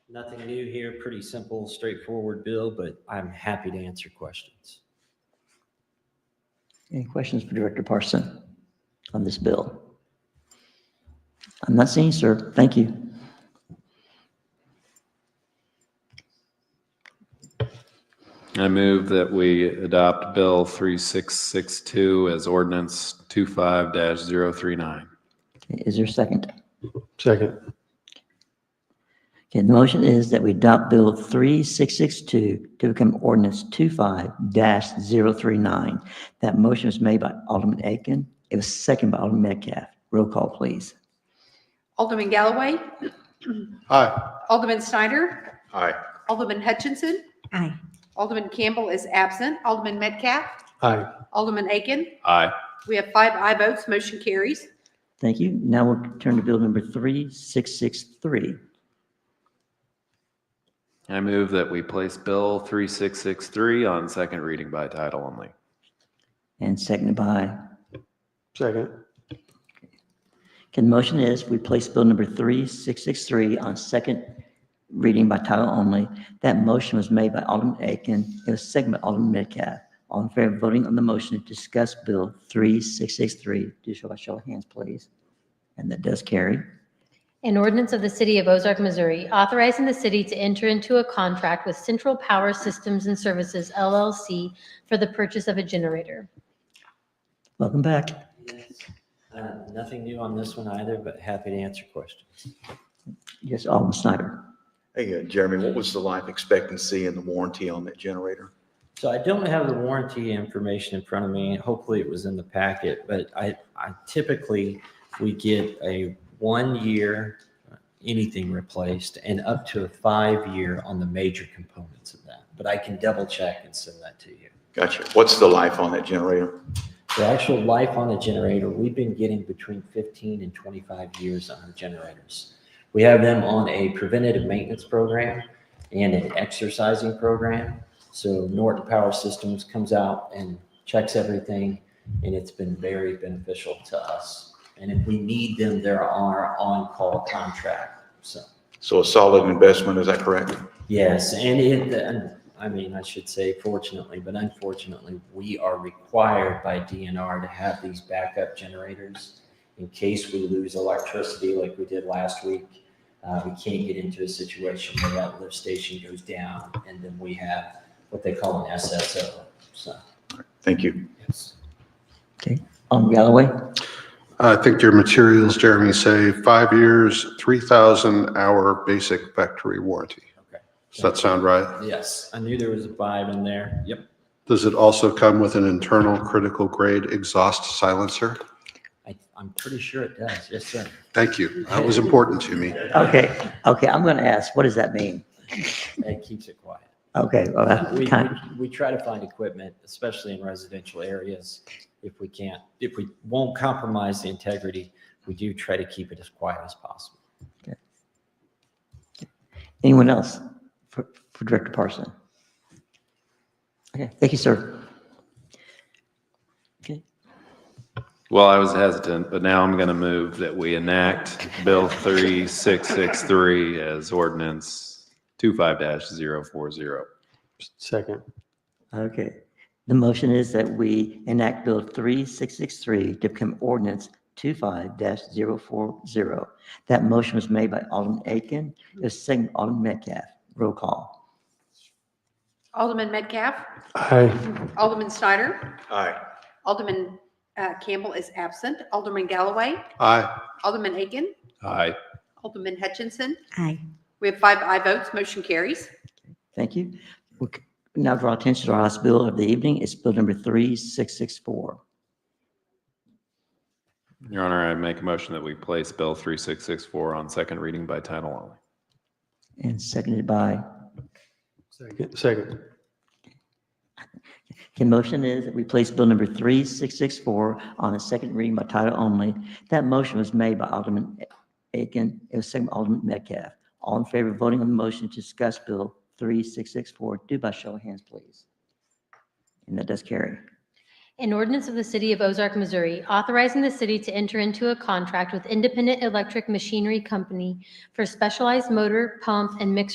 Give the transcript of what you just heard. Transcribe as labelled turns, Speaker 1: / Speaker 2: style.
Speaker 1: Nothing new here, pretty simple, straightforward bill, but I'm happy to answer questions.
Speaker 2: Any questions for Director Parson on this bill? I'm not seeing, sir. Thank you.
Speaker 3: I move that we adopt Bill 3662 as ordinance 25-039.
Speaker 2: Is there a second?
Speaker 4: Second.
Speaker 2: Okay, the motion is that we adopt Bill 3662 to become ordinance 25-039. That motion was made by Alderman Aiken. It was seconded by Alderman Metcalf. Roll call, please.
Speaker 5: Alderman Galloway,
Speaker 4: Aye.
Speaker 5: Alderman Snyder,
Speaker 4: Aye.
Speaker 5: Alderman Hutchinson.
Speaker 6: Aye.
Speaker 5: Alderman Campbell is absent. Alderman Metcalf,
Speaker 4: Aye.
Speaker 5: Alderman Aiken.
Speaker 3: Aye.
Speaker 5: We have five aye votes, motion carries.
Speaker 2: Thank you. Now we'll turn to Bill number 3663.
Speaker 3: I move that we place Bill 3663 on second reading by title only.
Speaker 2: And seconded by
Speaker 4: Second.
Speaker 2: Okay, the motion is we place bill number 3663 on second reading by title only. That motion was made by Alderman Aiken. It was seconded by Alderman Metcalf. All in favor of voting on the motion to discuss bill 3663, do so by show of hands, please. And that does carry.
Speaker 6: An ordinance of the City of Ozark, Missouri, authorizing the city to enter into a contract with Central Power Systems and Services LLC for the purchase of a generator.
Speaker 2: Welcome back.
Speaker 1: Uh, Nothing new on this one either, but happy to answer questions.
Speaker 2: Yes, Alderman Snyder.
Speaker 7: Hey, uh, Jeremy, what was the life expectancy and the warranty on that generator?
Speaker 1: So I don't have the warranty information in front of me. Hopefully it was in the packet, but I, I typically, we get a one-year, anything replaced, and up to a five-year on the major components of that. But I can double-check and send that to you.
Speaker 7: Gotcha. What's the life on that generator?
Speaker 1: The actual life on a generator, we've been getting between 15 and 25 years on our generators. We have them on a preventative maintenance program and an exercising program. So Norton Power Systems comes out and checks everything, and it's been very beneficial to us. And if we need them, they're on our on-call contract, so.
Speaker 7: So a solid investment, is that correct?
Speaker 1: Yes, and it, and, I mean, I should say fortunately, but unfortunately, we are required by DNR to have these backup generators in case we lose electricity like we did last week. Uh, we can't get into a situation where that lift station goes down and then we have what they call an SSO, so,
Speaker 7: Thank you.
Speaker 1: yes.
Speaker 2: Alderman Galloway.
Speaker 4: I think your materials, Jeremy, say five years, 3,000 hour basic factory warranty.
Speaker 1: Okay.
Speaker 4: Does that sound right?
Speaker 1: Yes, I knew there was a five in there. Yep.
Speaker 4: Does it also come with an internal critical grade exhaust silencer?
Speaker 1: I, I'm pretty sure it does, yes, sir.
Speaker 4: Thank you. That was important to me.
Speaker 2: Okay, okay, I'm going to ask, what does that mean?
Speaker 1: It keeps it quiet.
Speaker 2: Okay, well, that's
Speaker 1: We,
Speaker 2: kind-
Speaker 1: we- we try to find equipment, especially in residential areas. If we can't, if we won't compromise the integrity, we do try to keep it as quiet as possible.
Speaker 2: anyone else for for Director Parson? Okay, thank you, sir. Okay.
Speaker 3: Well, I was hesitant, but now I'm going to move that we enact Bill 3663 as ordinance 25-040.
Speaker 4: Second.
Speaker 2: Okay. The motion is that we enact Bill 3663 to become ordinance 25-040. That motion was made by Alderman Aiken, it was seconded by Alderman Metcalf. Roll call.
Speaker 5: Alderman Metcalf,
Speaker 4: Aye.
Speaker 5: Alderman Snyder,
Speaker 7: Aye.
Speaker 5: Alderman uh, Campbell is absent. Alderman Galloway,
Speaker 4: Aye.
Speaker 5: Alderman Aiken,
Speaker 3: Aye.
Speaker 5: Alderman Hutchinson.
Speaker 6: Aye.
Speaker 5: We have five aye votes, motion carries.
Speaker 2: Thank you. We'll c- Now draw attention to our last bill of the evening. It's Bill number 3664.
Speaker 3: Your Honor, I make a motion that we place Bill 3664 on second reading by title only.
Speaker 2: And seconded by,
Speaker 4: Second. Second.
Speaker 2: the motion is that we place Bill number 3664 on its second reading by title only. That motion was made by Alderman Aiken, it was seconded by Alderman Metcalf. All in favor of voting on the motion to discuss Bill 3664, do by show of hands, please. And that does carry.
Speaker 6: An ordinance of the City of Ozark, Missouri, authorizing the city to enter into a contract with Independent Electric Machinery Company for specialized motor, pump, and mixer